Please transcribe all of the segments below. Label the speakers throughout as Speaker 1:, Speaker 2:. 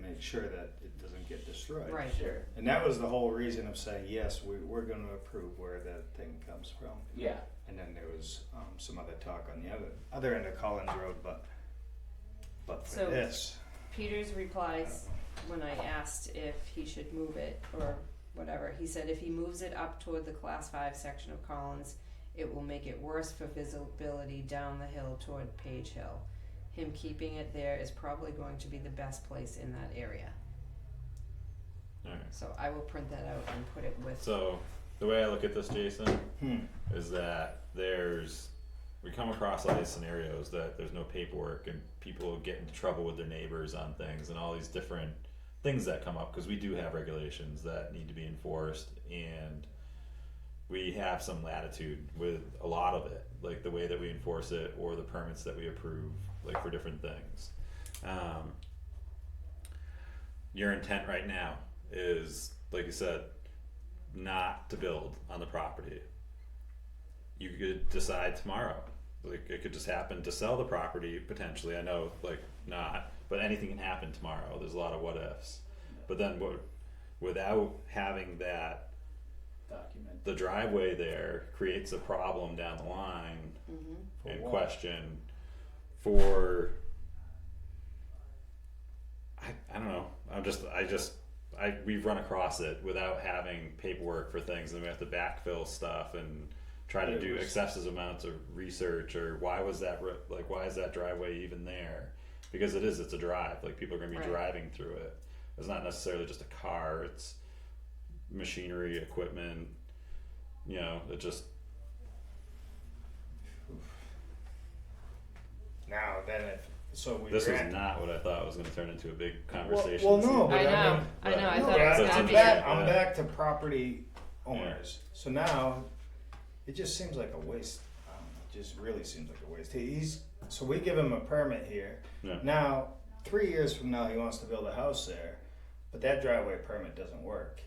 Speaker 1: make sure that it doesn't get destroyed.
Speaker 2: Right.
Speaker 3: Sure.
Speaker 1: And that was the whole reason of saying, yes, we, we're gonna approve where that thing comes from.
Speaker 3: Yeah.
Speaker 1: And then there was, um, some other talk on the other, other end of Collins Road, but, but for
Speaker 2: So-
Speaker 1: this.
Speaker 2: Peters
Speaker 1: I
Speaker 2: replies,
Speaker 1: don't know.
Speaker 2: when I asked if he should move it or whatever, he said if he moves it up toward the class five section of Collins, it will make it worse for visibility down the hill toward Page Hill. Him keeping it there is probably going to be the best place in that area.
Speaker 4: Alright.
Speaker 2: So I will print that out and put it with,
Speaker 4: So the way I look at this, Jason,
Speaker 1: Hmm,
Speaker 4: is that there's we come across all these scenarios that there's no paperwork and people get into trouble with their neighbors on things and all these different things that come up because we do have regulations that need to be enforced and we have some latitude with a lot of it like the way that we enforce it or the permits that we approve like for different things um, your intent right now is like you said not to build on the property you could decide tomorrow. Like it could just happen to sell the property potentially. I know like not, but anything can happen tomorrow. There's a lot of what ifs. But then what without having that
Speaker 3: Document.
Speaker 4: the driveway there creates a problem down the line
Speaker 2: Mhm.
Speaker 1: For
Speaker 4: and
Speaker 1: what?
Speaker 4: question for I, I don't know. I'm just I just I we've run across it without having paperwork for things and we have to backfill stuff and try to
Speaker 1: It
Speaker 4: do
Speaker 1: was-
Speaker 4: excessive amounts of research or why was that ri- like why is that driveway even there? Because it is it's a drive. Like people are going to be
Speaker 2: Right.
Speaker 4: driving through it. It's not necessarily just a car. It's machinery, equipment, you know, it just
Speaker 1: now then if, so we
Speaker 4: This was
Speaker 1: grant-
Speaker 4: not what I thought was going to turn into a big
Speaker 1: well,
Speaker 4: conversation.
Speaker 1: no,
Speaker 4: this evening.
Speaker 1: But
Speaker 2: I
Speaker 1: I
Speaker 2: know,
Speaker 1: mean-
Speaker 2: I know, I thought it
Speaker 4: Right.
Speaker 1: No,
Speaker 2: was
Speaker 4: That's
Speaker 1: but I'm
Speaker 2: gonna
Speaker 4: what
Speaker 2: be.
Speaker 4: I'm
Speaker 1: back, I'm
Speaker 4: Yeah.
Speaker 1: back to property owners. So now, it just seems like a waste. I don't know, It just really seems like a waste. He- He's so we give him a permit here.
Speaker 4: Yeah.
Speaker 1: Now, three years from now, he wants to build a house there, but that driveway permit doesn't work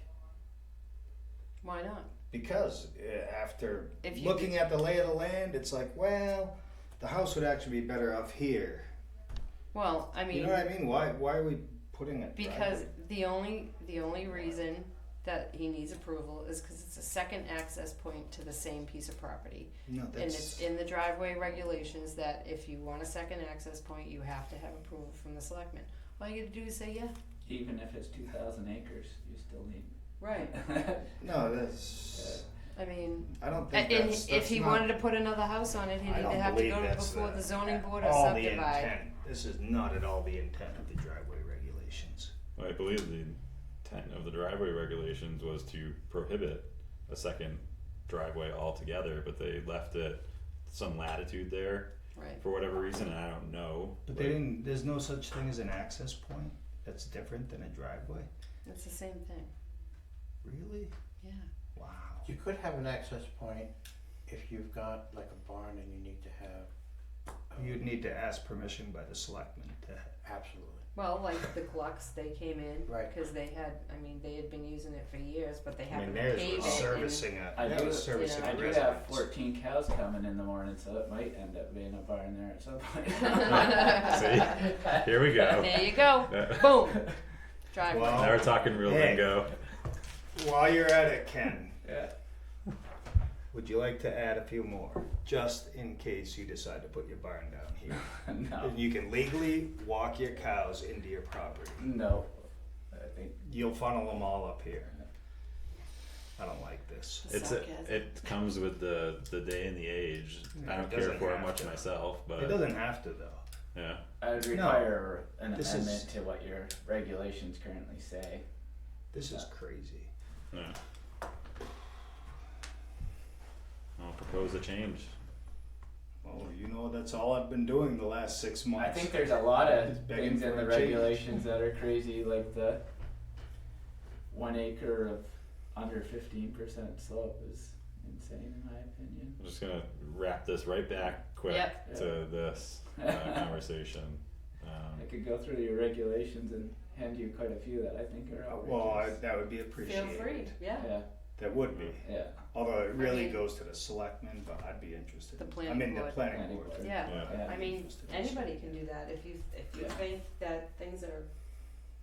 Speaker 2: Why not?
Speaker 1: because uh, after
Speaker 2: If you-
Speaker 1: looking at the lay of the land, it's like, well, the house would actually be better off here.
Speaker 2: Well, I
Speaker 1: You
Speaker 2: mean,
Speaker 1: know what I mean? Why? Why are we putting it?
Speaker 2: because the only, the only reason that he needs approval is cause it's a second access point to the same piece of property.
Speaker 1: no,
Speaker 2: And
Speaker 1: that's
Speaker 2: it's in the driveway regulations that if you want a second access point, you have to have approval from the selectmen. All you gotta do is say, yeah,
Speaker 3: Even if it's two thousand acres, you still need.
Speaker 2: right,
Speaker 1: no, that's.
Speaker 2: I mean,
Speaker 1: I don't
Speaker 2: and
Speaker 1: think that's,
Speaker 2: if
Speaker 1: that's
Speaker 2: he
Speaker 1: not-
Speaker 2: wanted to put another house on it, he'd
Speaker 1: I
Speaker 2: either
Speaker 1: don't
Speaker 2: have to
Speaker 1: believe
Speaker 2: go to
Speaker 1: that's
Speaker 2: before the zoning board or
Speaker 1: all the
Speaker 2: subdivide.
Speaker 1: intent. This is not at all the intent of the driveway regulations.
Speaker 4: I believe the intent of the driveway regulations was to prohibit a second driveway altogether, but they left it some latitude there
Speaker 2: Right,
Speaker 4: for whatever reason. And I don't know.
Speaker 1: But
Speaker 4: like,
Speaker 1: they didn't, there's no such thing as an access point that's different than a driveway,
Speaker 2: it's the same thing,
Speaker 1: really?
Speaker 2: yeah.
Speaker 1: Wow.
Speaker 5: You could have an access point if you've got like a barn and you need to have,
Speaker 1: You'd need to ask permission by the selectmen to,
Speaker 5: absolutely.
Speaker 2: Well, like the Glucks, they came in,
Speaker 5: Right.
Speaker 2: cause they had, I mean, they had been using it for years, but they
Speaker 1: I mean,
Speaker 2: haven't
Speaker 1: theirs
Speaker 2: paved
Speaker 1: was
Speaker 2: it and-
Speaker 1: servicing a,
Speaker 3: I
Speaker 1: that
Speaker 3: do-
Speaker 1: was servicing
Speaker 2: yeah.
Speaker 3: I
Speaker 1: a
Speaker 3: do have
Speaker 1: residence.
Speaker 3: fourteen cows coming in the morning, so it might end up being a barn there at some
Speaker 4: Right.
Speaker 3: point.
Speaker 4: Here we go.
Speaker 2: There you go,
Speaker 4: Uh,
Speaker 2: boom, driveway.
Speaker 1: Well,
Speaker 4: now we're talking real
Speaker 1: Hey.
Speaker 4: lingo.
Speaker 1: While you're at it, Ken,
Speaker 3: Yeah.
Speaker 1: would you like to add a few more, just in case you decide to put your barn down here?
Speaker 3: No,
Speaker 1: And you can legally walk your cows into your property.
Speaker 3: no, I think,
Speaker 1: You'll funnel them all up here. I don't like this.
Speaker 2: The
Speaker 4: It's a,
Speaker 2: sarcasm.
Speaker 4: it comes with the the day and the age.
Speaker 1: Yeah,
Speaker 4: I
Speaker 1: it
Speaker 4: don't care
Speaker 1: doesn't
Speaker 4: for it
Speaker 1: have
Speaker 4: much
Speaker 1: to.
Speaker 4: myself,
Speaker 1: It
Speaker 4: but
Speaker 1: doesn't have to though.
Speaker 4: yeah.
Speaker 3: I would
Speaker 1: No.
Speaker 3: require an
Speaker 1: This is-
Speaker 3: amendment to what your regulations currently say.
Speaker 1: This is crazy.
Speaker 4: Yeah. I'll propose a change.
Speaker 1: Well, you know, that's all I've been doing the last six
Speaker 3: I
Speaker 1: months.
Speaker 3: think there's a lot of
Speaker 1: It's begging
Speaker 3: things
Speaker 1: for
Speaker 3: in the
Speaker 1: a change.
Speaker 3: regulations that are crazy, like the one acre of under fifteen percent slope is insane in my opinion.
Speaker 4: I'm just gonna wrap this right back quick
Speaker 2: Yep.
Speaker 4: to this uh, conversation. Um,
Speaker 3: I could go through your regulations and hand you quite a few that I think are
Speaker 1: Uh,
Speaker 3: outrageous.
Speaker 1: Well, I, that would be
Speaker 2: Feel
Speaker 1: appreciated.
Speaker 2: free, yeah.
Speaker 3: Yeah,
Speaker 1: That would be.
Speaker 3: yeah.
Speaker 1: Although it really
Speaker 2: mean-
Speaker 1: goes to the selectmen, but I'd be interested. I
Speaker 2: The
Speaker 1: mean,
Speaker 2: planning
Speaker 1: the
Speaker 2: board.
Speaker 1: planning
Speaker 3: Planning
Speaker 1: board.
Speaker 3: board.
Speaker 2: Yeah,
Speaker 4: yeah.
Speaker 3: Yeah.
Speaker 2: I mean, anybody can do that if you, if you
Speaker 3: Yeah.
Speaker 2: think that things are